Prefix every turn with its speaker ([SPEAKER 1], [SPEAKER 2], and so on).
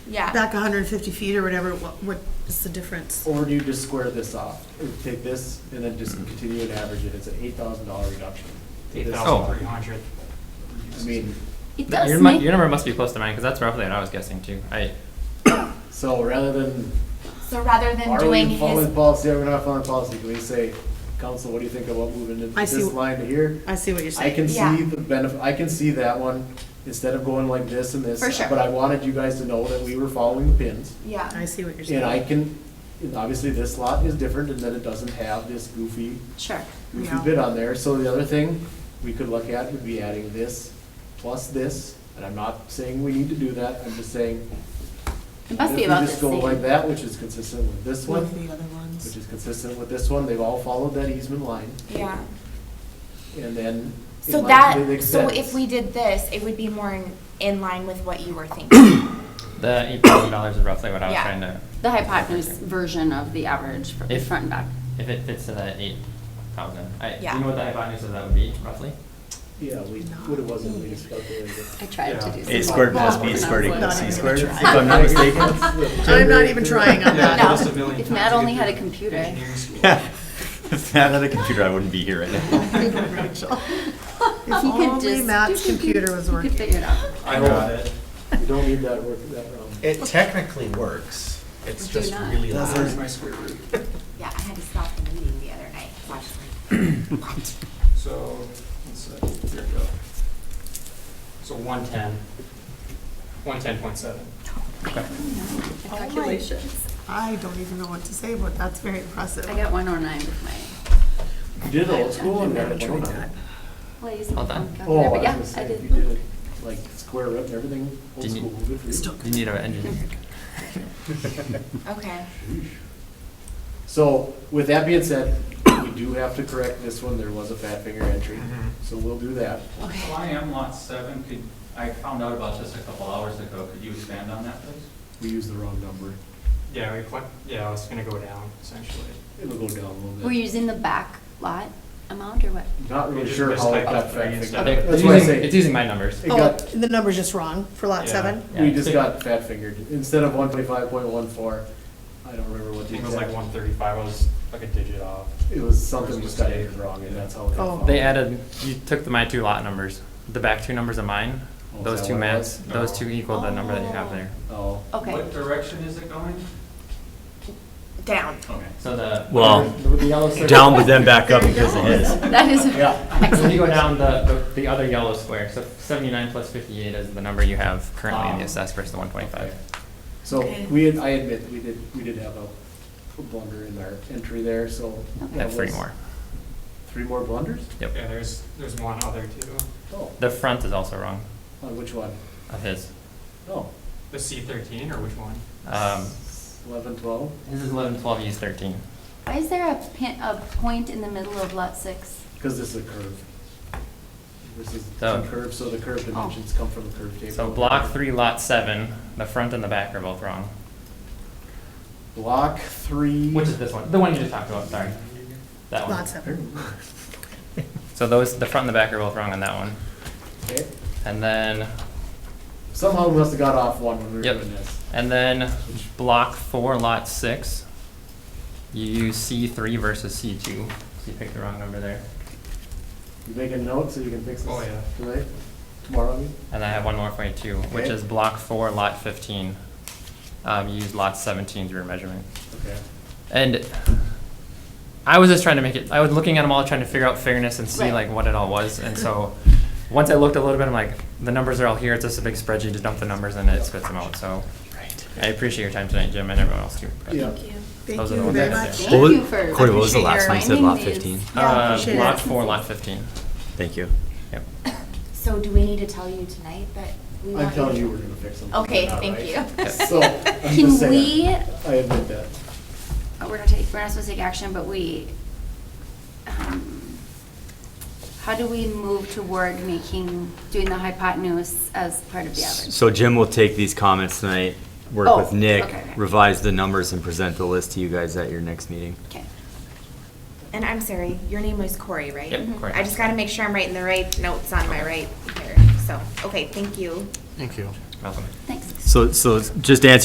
[SPEAKER 1] yeah,
[SPEAKER 2] back hundred and fifty feet or whatever, what, what is the difference?
[SPEAKER 3] Or do you just square this off? Take this and then just continue and average it, it's an eight thousand dollar reduction. to
[SPEAKER 4] Eight
[SPEAKER 3] this
[SPEAKER 4] thousand three
[SPEAKER 3] property.
[SPEAKER 4] hundred.
[SPEAKER 3] I mean,
[SPEAKER 1] it
[SPEAKER 4] Th-
[SPEAKER 1] does
[SPEAKER 4] Your, mu-
[SPEAKER 1] make,
[SPEAKER 4] your number must be close to mine, because that's roughly what I was guessing too. I,
[SPEAKER 3] so rather than,
[SPEAKER 1] so rather than
[SPEAKER 3] are
[SPEAKER 1] doing
[SPEAKER 3] we
[SPEAKER 1] his,
[SPEAKER 3] following policy, are we not following policy? Can we say, council, what do you think about moving into
[SPEAKER 2] I see
[SPEAKER 3] this
[SPEAKER 2] wh-
[SPEAKER 3] line to here?
[SPEAKER 2] I see what you're
[SPEAKER 3] I
[SPEAKER 2] saying.
[SPEAKER 3] can
[SPEAKER 1] Yeah.
[SPEAKER 3] see the benefit, I can see that one, instead of going like this and this.
[SPEAKER 1] For sure.
[SPEAKER 3] But I wanted you guys to know that we were following the pins.
[SPEAKER 1] yeah,
[SPEAKER 2] I see what you're saying.
[SPEAKER 3] And I can, and obviously this lot is different in that it doesn't have this goofy,
[SPEAKER 1] sure,
[SPEAKER 3] goofy
[SPEAKER 2] Yeah.
[SPEAKER 3] bit on there. So the other thing we could look at would be adding this plus this, and I'm not saying we need to do that, I'm just saying.
[SPEAKER 1] it must
[SPEAKER 3] if
[SPEAKER 1] be
[SPEAKER 3] we
[SPEAKER 1] about the
[SPEAKER 3] just go like
[SPEAKER 1] same,
[SPEAKER 3] that, which is consistent with this
[SPEAKER 2] One
[SPEAKER 3] one,
[SPEAKER 2] of the other
[SPEAKER 3] which
[SPEAKER 2] ones.
[SPEAKER 3] is consistent with this one, they've all followed that easement line,
[SPEAKER 1] yeah.
[SPEAKER 3] and then. it
[SPEAKER 1] So
[SPEAKER 3] might-
[SPEAKER 1] that,
[SPEAKER 3] it
[SPEAKER 1] so if
[SPEAKER 3] extends.
[SPEAKER 1] we did this, it would be more in, in line with what you were thinking,
[SPEAKER 4] the eight thousand dollars is roughly what I was
[SPEAKER 1] Yeah.
[SPEAKER 4] trying to,
[SPEAKER 5] The hypotenuse version of the average for
[SPEAKER 4] If-
[SPEAKER 5] front and back.
[SPEAKER 4] if it fits to that eight thousand. I, do
[SPEAKER 1] Yeah.
[SPEAKER 4] you know what the hypotenuse of that would be roughly?
[SPEAKER 3] Yeah, we, what it was, we just calculated it.
[SPEAKER 5] I tried to do. some
[SPEAKER 6] A squared
[SPEAKER 5] math
[SPEAKER 6] plus
[SPEAKER 5] when I
[SPEAKER 6] B
[SPEAKER 5] was
[SPEAKER 6] squared
[SPEAKER 5] like-
[SPEAKER 6] equals
[SPEAKER 2] Not
[SPEAKER 6] C
[SPEAKER 2] even
[SPEAKER 6] squared,
[SPEAKER 2] trying.
[SPEAKER 6] if I'm not mistaken.
[SPEAKER 2] I'm not even trying on
[SPEAKER 5] Yeah,
[SPEAKER 2] that.
[SPEAKER 5] No.
[SPEAKER 7] Cost a million
[SPEAKER 5] If
[SPEAKER 7] times
[SPEAKER 5] Matt
[SPEAKER 7] to get
[SPEAKER 5] only had
[SPEAKER 7] through
[SPEAKER 5] a computer.
[SPEAKER 7] engineering school.
[SPEAKER 6] Yeah. If Matt had a computer, I wouldn't be here right now.
[SPEAKER 2] Rachel.
[SPEAKER 5] If he
[SPEAKER 2] If
[SPEAKER 5] could
[SPEAKER 2] only
[SPEAKER 5] just-
[SPEAKER 2] Matt's computer was
[SPEAKER 5] You could
[SPEAKER 2] working.
[SPEAKER 5] figure it out.
[SPEAKER 7] I
[SPEAKER 6] know
[SPEAKER 7] got it.
[SPEAKER 3] You don't need that work, that round.
[SPEAKER 6] Eh,
[SPEAKER 8] It technically works. It's
[SPEAKER 5] Do
[SPEAKER 8] just
[SPEAKER 5] not.
[SPEAKER 8] really
[SPEAKER 7] That's where's
[SPEAKER 8] loud.
[SPEAKER 7] my square root.
[SPEAKER 1] yeah, I had to stop the meeting the other night, watching.
[SPEAKER 7] So, let's see, here we go. So one ten, one ten point seven.
[SPEAKER 5] The calculations.
[SPEAKER 2] I don't even know what to say, but that's very impressive.
[SPEAKER 5] I got one oh nine with my,
[SPEAKER 3] You did old school and
[SPEAKER 2] Never
[SPEAKER 3] that
[SPEAKER 2] tried that.
[SPEAKER 3] one.
[SPEAKER 5] well, I used my
[SPEAKER 4] Hold on.
[SPEAKER 5] phone
[SPEAKER 3] Oh, I
[SPEAKER 5] calculator,
[SPEAKER 3] was
[SPEAKER 5] but yeah,
[SPEAKER 3] gonna
[SPEAKER 5] I
[SPEAKER 3] say, if you did
[SPEAKER 5] did.
[SPEAKER 3] it, like square root and everything, old
[SPEAKER 4] Didn't you-
[SPEAKER 3] school, good for you.
[SPEAKER 4] You need an engineer.
[SPEAKER 1] Okay,
[SPEAKER 3] So with that being said, we do have to correct this one, there was a fat finger entry,
[SPEAKER 4] Mm-hmm.
[SPEAKER 3] so we'll do that.
[SPEAKER 9] So I am lot seven, could, I found out about this a couple hours ago, could you expand on that, please?
[SPEAKER 3] We used the wrong number,
[SPEAKER 7] Yeah, we collect, yeah, I was gonna go down essentially.
[SPEAKER 3] it'll go down a little
[SPEAKER 5] Were you
[SPEAKER 3] bit.
[SPEAKER 5] using the back lot amount or what?
[SPEAKER 3] Not
[SPEAKER 7] We
[SPEAKER 3] really
[SPEAKER 7] just
[SPEAKER 3] sure how
[SPEAKER 7] mistyped
[SPEAKER 3] it
[SPEAKER 7] the
[SPEAKER 3] got
[SPEAKER 7] three
[SPEAKER 3] fat
[SPEAKER 7] instead
[SPEAKER 3] fingered.
[SPEAKER 7] of-
[SPEAKER 3] That's
[SPEAKER 4] It's
[SPEAKER 3] why I
[SPEAKER 4] using,
[SPEAKER 3] say,
[SPEAKER 4] it's using my numbers.
[SPEAKER 3] it
[SPEAKER 2] Oh,
[SPEAKER 3] got,
[SPEAKER 2] the number's just wrong for lot
[SPEAKER 7] Yeah.
[SPEAKER 2] seven?
[SPEAKER 4] Yeah.
[SPEAKER 3] we just got fat fingered, instead of one twenty-five point one four, I don't remember
[SPEAKER 7] I
[SPEAKER 3] what the
[SPEAKER 7] think it was like
[SPEAKER 3] exact.
[SPEAKER 7] one thirty-five, I was like a digit off.
[SPEAKER 3] It was something just got entered wrong and that's how it
[SPEAKER 2] Oh.
[SPEAKER 3] got.
[SPEAKER 4] They added, you took the, my two lot numbers, the back two numbers of mine,
[SPEAKER 3] Oh, is
[SPEAKER 4] those
[SPEAKER 3] that
[SPEAKER 4] two
[SPEAKER 3] what it
[SPEAKER 4] mats,
[SPEAKER 3] was?
[SPEAKER 4] those two equal the number that you have
[SPEAKER 1] Oh.
[SPEAKER 4] there.
[SPEAKER 3] Oh.
[SPEAKER 5] Okay,
[SPEAKER 9] What direction is it going?
[SPEAKER 1] down,
[SPEAKER 9] Okay.
[SPEAKER 4] So the.
[SPEAKER 6] Well,
[SPEAKER 3] The yellow circle.
[SPEAKER 6] down but then back up because of his.
[SPEAKER 5] that is
[SPEAKER 3] Yeah.
[SPEAKER 4] So you
[SPEAKER 5] excellent.
[SPEAKER 4] go down the, the- the other yellow square, so seventy-nine plus fifty-eight is the number you have currently in the
[SPEAKER 3] Ah.
[SPEAKER 4] assessed versus the one twenty-five.
[SPEAKER 3] So
[SPEAKER 1] Okay.
[SPEAKER 3] we, had- I admit, we did, we did have a blunder in our entry there, so. that
[SPEAKER 4] Have three
[SPEAKER 3] was-
[SPEAKER 4] more.
[SPEAKER 3] Three more blunders?
[SPEAKER 4] Yep.
[SPEAKER 7] Yeah, there's, there's one other too.
[SPEAKER 3] Oh,
[SPEAKER 4] The front is also wrong
[SPEAKER 3] on which one?
[SPEAKER 4] of his.
[SPEAKER 3] Oh,
[SPEAKER 7] The C thirteen or which one?
[SPEAKER 4] Um,
[SPEAKER 3] eleven, twelve?
[SPEAKER 4] his is eleven, twelve, he's thirteen.
[SPEAKER 5] Why is there a pin, a point in the middle of lot six?
[SPEAKER 3] Because this is a curve. This is
[SPEAKER 4] So-
[SPEAKER 3] a curve, so the
[SPEAKER 2] Oh.
[SPEAKER 3] curve dimensions come from the curve table.
[SPEAKER 4] Oh. So block three, lot seven, the front and the back are both wrong.
[SPEAKER 3] Block three.
[SPEAKER 4] Which is this one, the one you just talked about, sorry, that one.
[SPEAKER 2] Lot seven.
[SPEAKER 4] So those, the front and the back are both wrong on that one.
[SPEAKER 3] Okay.
[SPEAKER 4] And then,
[SPEAKER 3] Somehow we must have got off one when we were
[SPEAKER 4] Yep.
[SPEAKER 3] doing this.
[SPEAKER 4] and then block four, lot six, you use C three versus C two. So you picked the wrong number there.
[SPEAKER 3] You make a note so you can fix this.
[SPEAKER 7] Oh, yeah.
[SPEAKER 3] Tonight, tomorrow, I mean?
[SPEAKER 4] And I have one more for you too, which
[SPEAKER 3] Okay.
[SPEAKER 4] is block four, lot fifteen. Um, you use lot seventeen as your measurement.
[SPEAKER 3] Okay.
[SPEAKER 4] And I was just trying to make it, I was looking at them all, trying to figure out fairness and see
[SPEAKER 5] Right.
[SPEAKER 4] like what it all was. And so, once I looked a little bit, I'm like, the numbers are all here, it's just a big spreadsheet to dump the numbers and it spits them out, so. I appreciate your time tonight, Jim, and everyone else too.
[SPEAKER 3] Yeah.
[SPEAKER 2] Thank
[SPEAKER 4] Those are the
[SPEAKER 2] you
[SPEAKER 4] ones
[SPEAKER 2] very
[SPEAKER 4] that-
[SPEAKER 2] much.
[SPEAKER 5] Thank
[SPEAKER 6] What was-
[SPEAKER 5] you for.
[SPEAKER 6] Corey, what was the
[SPEAKER 5] appreciate
[SPEAKER 6] last
[SPEAKER 5] your
[SPEAKER 6] one? You said
[SPEAKER 5] finding
[SPEAKER 6] lot
[SPEAKER 5] these.
[SPEAKER 6] 15?
[SPEAKER 2] Yeah,
[SPEAKER 4] Uh,
[SPEAKER 2] appreciate
[SPEAKER 4] lot
[SPEAKER 2] it.
[SPEAKER 4] four, lot fifteen.
[SPEAKER 6] Thank you.
[SPEAKER 4] Yep.
[SPEAKER 1] so do we need to tell you tonight that we want you
[SPEAKER 3] I'm
[SPEAKER 1] to?
[SPEAKER 3] telling you we're gonna fix them.
[SPEAKER 1] Okay,
[SPEAKER 3] Not
[SPEAKER 1] thank
[SPEAKER 3] right.
[SPEAKER 1] you.
[SPEAKER 3] So, I'm just
[SPEAKER 5] Can
[SPEAKER 3] saying,
[SPEAKER 5] we,
[SPEAKER 3] I admit that.
[SPEAKER 5] uh, we're not taking, we're not supposed to take action, but we, um, how do we move toward making, doing the hypotenuse as part of the average?
[SPEAKER 6] So Jim will take these comments tonight, work
[SPEAKER 5] Oh,
[SPEAKER 6] with Nick,
[SPEAKER 5] okay.
[SPEAKER 6] revise the numbers and present the list to you guys at your next meeting.
[SPEAKER 5] Okay.
[SPEAKER 1] And I'm sorry, your name was Corey, right? Mm-hmm.
[SPEAKER 4] Yep, Corey.
[SPEAKER 1] I just gotta make sure I'm writing the right notes on my right here, so, okay, thank you.
[SPEAKER 4] Welcome.
[SPEAKER 5] Thanks.
[SPEAKER 6] So, so just to answer